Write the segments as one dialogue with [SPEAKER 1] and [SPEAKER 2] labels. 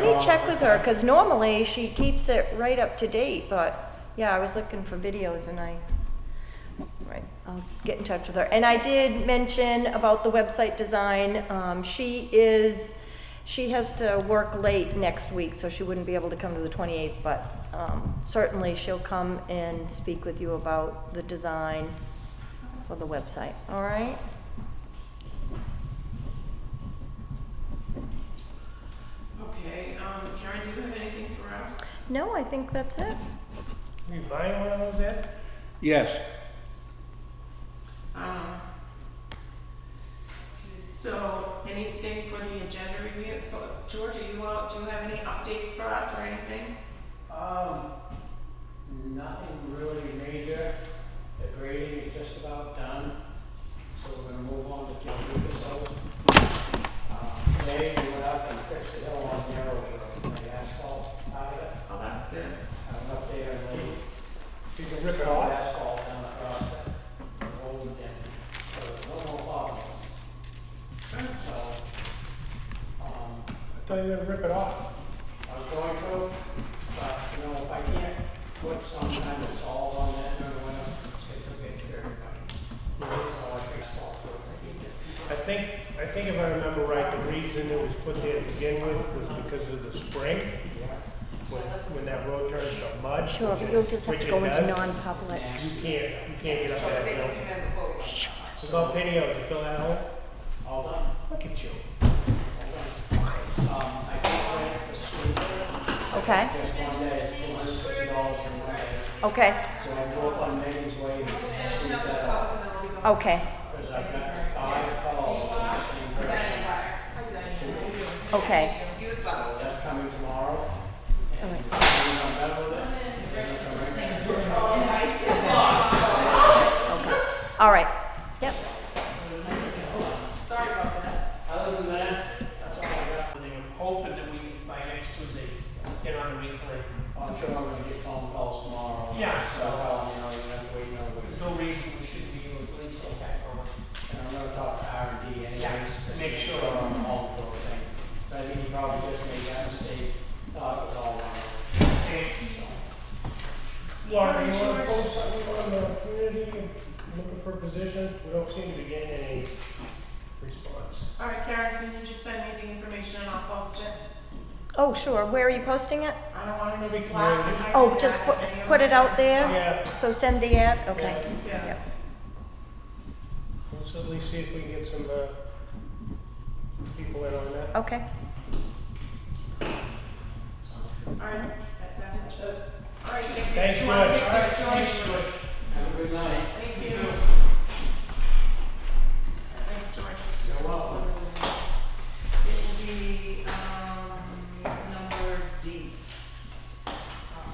[SPEAKER 1] me check with her, because normally she keeps it right up to date, but, yeah, I was looking for videos and I, right, I'll get in touch with her. And I did mention about the website design, um, she is, she has to work late next week, so she wouldn't be able to come to the twenty-eighth, but, um, certainly she'll come and speak with you about the design for the website, all right?
[SPEAKER 2] Okay, um, Karen, do you have anything for us?
[SPEAKER 1] No, I think that's it.
[SPEAKER 3] You buying one of those yet?
[SPEAKER 4] Yes,
[SPEAKER 2] Um, so, anything for the agenda review? So, George, are you out, do you have any updates for us or anything?
[SPEAKER 5] Um, nothing really major. The grading is just about done, so we're gonna move on to Kim Lucas. Um, today we went up and fixed the hill on Narrow Road, the asphalt out of it.
[SPEAKER 2] Oh, that's good.
[SPEAKER 5] I went up there and laid
[SPEAKER 3] You can rip it
[SPEAKER 5] all
[SPEAKER 3] off.
[SPEAKER 5] asphalt down across it, and rolled it in, so there's no more potholes. So, um,
[SPEAKER 3] I thought you were gonna rip it off.
[SPEAKER 5] I was going to, but, you know, if I can't put some kind of salt on that, or whatever, it's a bit dirty. but It's all I can salt for, I think it's-
[SPEAKER 3] I think, I think if I remember right, the reason it was put there to begin with was because of the spring,
[SPEAKER 5] yeah,
[SPEAKER 3] when, when that road turns to mud.
[SPEAKER 1] Sure,
[SPEAKER 3] which
[SPEAKER 1] but
[SPEAKER 3] it-
[SPEAKER 1] you'll just have to
[SPEAKER 3] which it
[SPEAKER 1] go into
[SPEAKER 3] does,
[SPEAKER 1] non-public.
[SPEAKER 3] You can't, you can't get up that hill. It's about video, you fill that hole?
[SPEAKER 5] all done,
[SPEAKER 3] Look at you.
[SPEAKER 5] all done. Um, I did rent the scooter,
[SPEAKER 1] Okay,
[SPEAKER 5] just one day, it's two hundred fifty dollars for one day.
[SPEAKER 1] okay,
[SPEAKER 5] So I go up on Megan's Way, see that,
[SPEAKER 1] okay,
[SPEAKER 5] because I got five calls from the same person. Two.
[SPEAKER 1] okay.
[SPEAKER 5] So that's coming tomorrow.
[SPEAKER 1] All right.
[SPEAKER 5] I'm done with it.
[SPEAKER 1] All right. Yep.
[SPEAKER 5] Other than that, that's all I got.
[SPEAKER 3] They were hoping that we, by next Tuesday, get on the reclaim.
[SPEAKER 5] I'm sure I'm gonna get phone calls tomorrow.
[SPEAKER 3] Yeah.
[SPEAKER 5] So, um, you know, you have to wait another week.
[SPEAKER 3] no reason we shouldn't be able to police that back over.
[SPEAKER 5] And I'm gonna talk to R and D anyways.
[SPEAKER 3] Yeah, make sure.
[SPEAKER 5] So I'm home for a thing. But I think he probably just made that mistake, thought it was all wrong.
[SPEAKER 3] Laura, you wanna post something on the community, looking for positions, we don't seem to be getting any response.
[SPEAKER 2] All right, Karen, can you just send me the information and I'll post it?
[SPEAKER 1] Oh, sure. Where are you posting it?
[SPEAKER 2] I don't want
[SPEAKER 3] Maybe
[SPEAKER 2] to be
[SPEAKER 3] we can
[SPEAKER 2] flat.
[SPEAKER 3] make it-
[SPEAKER 2] behind
[SPEAKER 1] Oh,
[SPEAKER 2] the
[SPEAKER 1] just
[SPEAKER 2] back
[SPEAKER 1] put,
[SPEAKER 2] of any of
[SPEAKER 1] put
[SPEAKER 2] the
[SPEAKER 1] it out
[SPEAKER 2] signs.
[SPEAKER 1] there?
[SPEAKER 3] Yeah,
[SPEAKER 1] So send the ad? Okay.
[SPEAKER 2] Yeah,
[SPEAKER 1] Yep.
[SPEAKER 3] let's at least see if we can get some, uh, people in on that.
[SPEAKER 1] Okay.
[SPEAKER 2] all right, that, that's it. All right, thank you.
[SPEAKER 3] Thanks,
[SPEAKER 2] Do
[SPEAKER 3] George.
[SPEAKER 2] you want to take this, George?
[SPEAKER 3] Thanks, George.
[SPEAKER 5] Have a good night.
[SPEAKER 2] Thank you. Thanks, George.
[SPEAKER 5] You're welcome.
[SPEAKER 2] It will be, um, number D. Um, uh,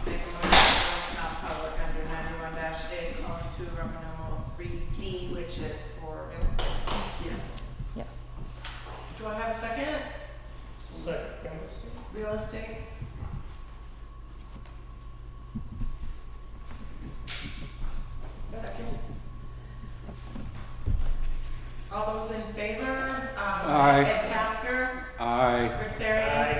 [SPEAKER 2] Make a motion to open up public under ninety-one dash eight, colon two, Roman numeral three D, which is for real estate. Yes.
[SPEAKER 1] Yes.
[SPEAKER 2] Do I have a second?
[SPEAKER 3] Second.
[SPEAKER 2] Real estate? Second. All those in favor? Um,
[SPEAKER 4] Aye.
[SPEAKER 2] Ed Tasker,
[SPEAKER 4] I,
[SPEAKER 2] Rick Barry,
[SPEAKER 3] Aye.